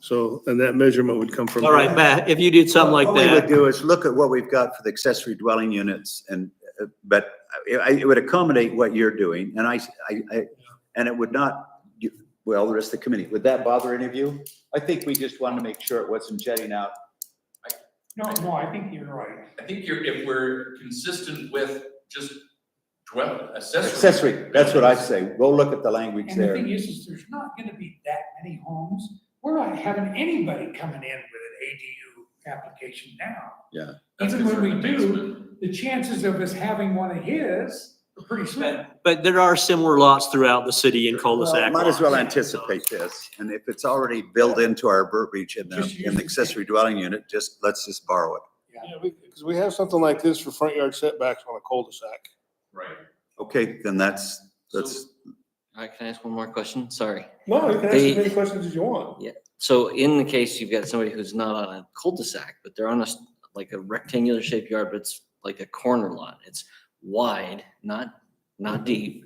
So, and that measurement would come from. All right, Matt, if you did something like What we would that, do is look at what we've got for the accessory dwelling units and, uh, but I- I- it would accommodate what you're doing and I, I, I- and it would not, you- well, the rest of the committee, would that bother any of you? I think we just wanted to make sure it wasn't jetting out. No, no, I think you're right. I think you're, if we're consistent with just dwell, accessory. Accessory, that's what I say. Go look at the language And the there. thing is, is there's not gonna be that many homes. We're not having anybody coming in with an ADU application now. That's Even when we considered a do- basement. The chances of us having one of his are pretty slim. but there are similar lots throughout the city in Well, cul-de-sac. Might as well lots. anticipate this. And if it's already built into our verbiage in the, Just use in the it. accessory dwelling unit, just, let's just borrow it. Because we have something like this for front yard setbacks on a cul-de-sac. Right. Okay, then that's, that's, So- All right, can I ask one more question? Sorry. No, you can ask as many questions as you want. So in the case you've got somebody who's not on a cul-de-sac, but they're on a, s- like a rectangular shaped yard, but it's like a corner lot. It's wide, not, not deep.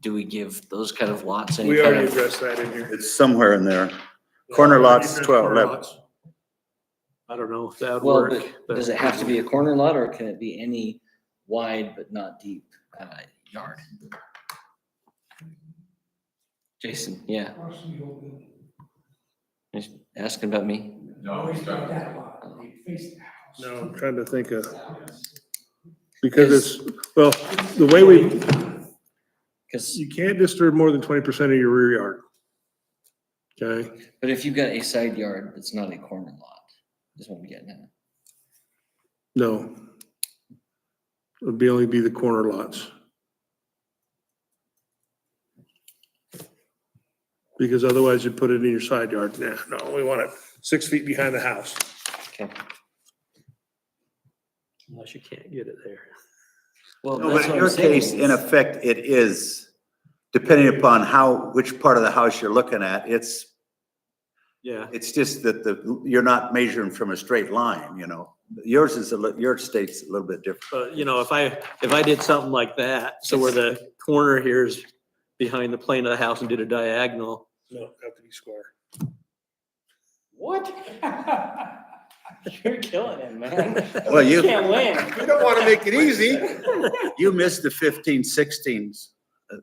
Do we give those kind of lots any We kind already of? addressed that in here. it's somewhere in there. Corner lots, 12, Corner 11. lots. I don't know if that would Well, work. but does it have to be a corner lot or can it be any wide but not deep, uh, yard? Jason, yeah, he's asking about me. No, we Always got started. that lot. They face the house. No, I'm trying to think of, because it's, well, the way we, Cause you can't disturb more than twenty percent of your rear yard. Okay, But if you've got a side yard, it's not a corner lot, is what I'm getting at. no. It'd be only be the corner lots. Because otherwise you put it in your side yard. Nah, no, we want it six feet behind the house. Okay. Unless you can't get it there. Well, No, but that's what in I'm your saying case, in is- effect, it is, depending upon how, which part of the house you're looking at, it's, Yeah, it's just that the, you're not measuring from a straight line, you know? Yours is a, lit- your state's a little bit different. but you know, if I, if I did something like that, so where the corner here is behind the plane of the house and did a diagonal, No, it'd have to be square. What? You're killing it, man. Well, You you, can't win. We don't want to make it easy. you missed the fifteen sixteens uh,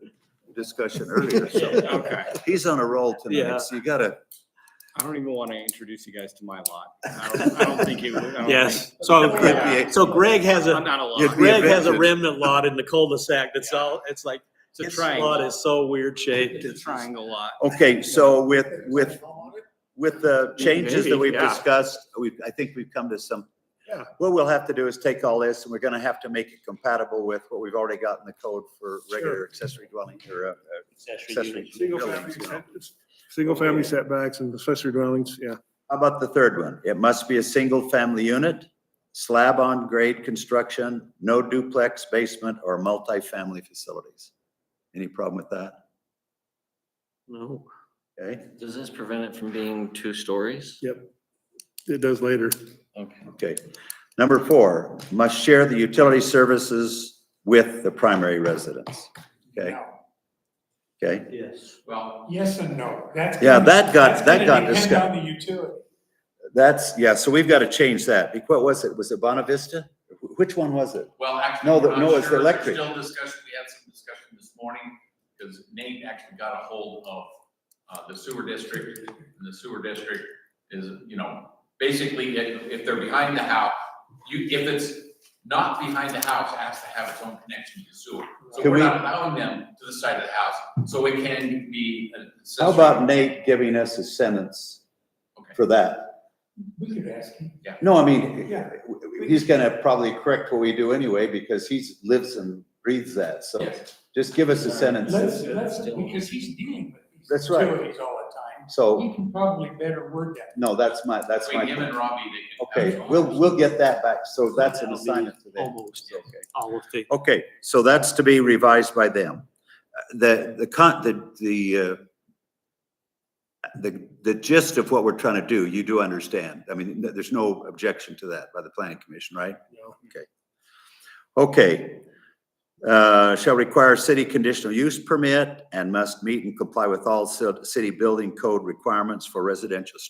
discussion earlier, so Okay. he's on a roll tonight, so you gotta, I don't even want to introduce you guys to my lot. I don't, I don't think it would. I Oh, don't yes. think- So, Yeah. so Greg has I'm a, not a You'd lot. be Greg has a evicted. remnant lot in the cul-de-sac that's all, it's like, It's a this lot triangle. is so weird shaped. It's a triangle lot. okay, so with, with, with the changes that Maybe, we've yeah. discussed, we, I think we've come to some. Yeah. What we'll have to do is take all this and we're gonna have to make it compatible with what we've already got in the code for regular accessory dwelling or uh, uh, accessory Single family, buildings. you know. single family setbacks and accessory dwellings, yeah. How about the third one? It must be a single family unit, slab on grade construction, no duplex, basement or multifamily facilities. Any problem with that? No. Okay, Does this prevent it from being two stories? It does later. Okay. okay. Number four, must share the utility services with the primary residence. Okay, No. okay. Yes. Well, Yes and no. That's. Yeah, gonna- that got- that's that gonna got depend discussed. On the utility. That's, yeah, so we've got to change that. Be- What was it? Was it Bonavista? Wh- Which one was it? well, actually. No, we're the- not no, it's sure. There's electric. Still discussion, we had some discussion this morning, because Nate actually got a hold of, uh, the sewer district. And the sewer district is, you know, basically, if, if they're behind the house, you, if it's not behind the house, it has to have its own connection to the sewer. So Can we're we- not allowing them to the side of the house, so it can be. an How accessory. about Nate giving us a sentence Okay. for that? We could ask him. No, I mean, Yeah. he's gonna probably correct what we do anyway, because he's lives and breathes that, so Yes. just give us a sentence. Let's, let's, because he's dealing with these. That's right. Utilities all the time. So, He can probably better word that. no, that's my, that's Between him my, and Robbie, they can. have okay, their own we'll, we'll get that back, so that's an That'll be assignment to them. Almost, Okay. all of the. Okay, so that's to be revised by them. Uh, The, the con, the, the, uh, the, the gist of what we're trying to do, you do understand. I mean, th- there's no objection to that by the planning commission, right? No. Okay. Okay. Uh, shall require city conditional use permit and must meet and comply with all ci- city building code requirements for residential structures.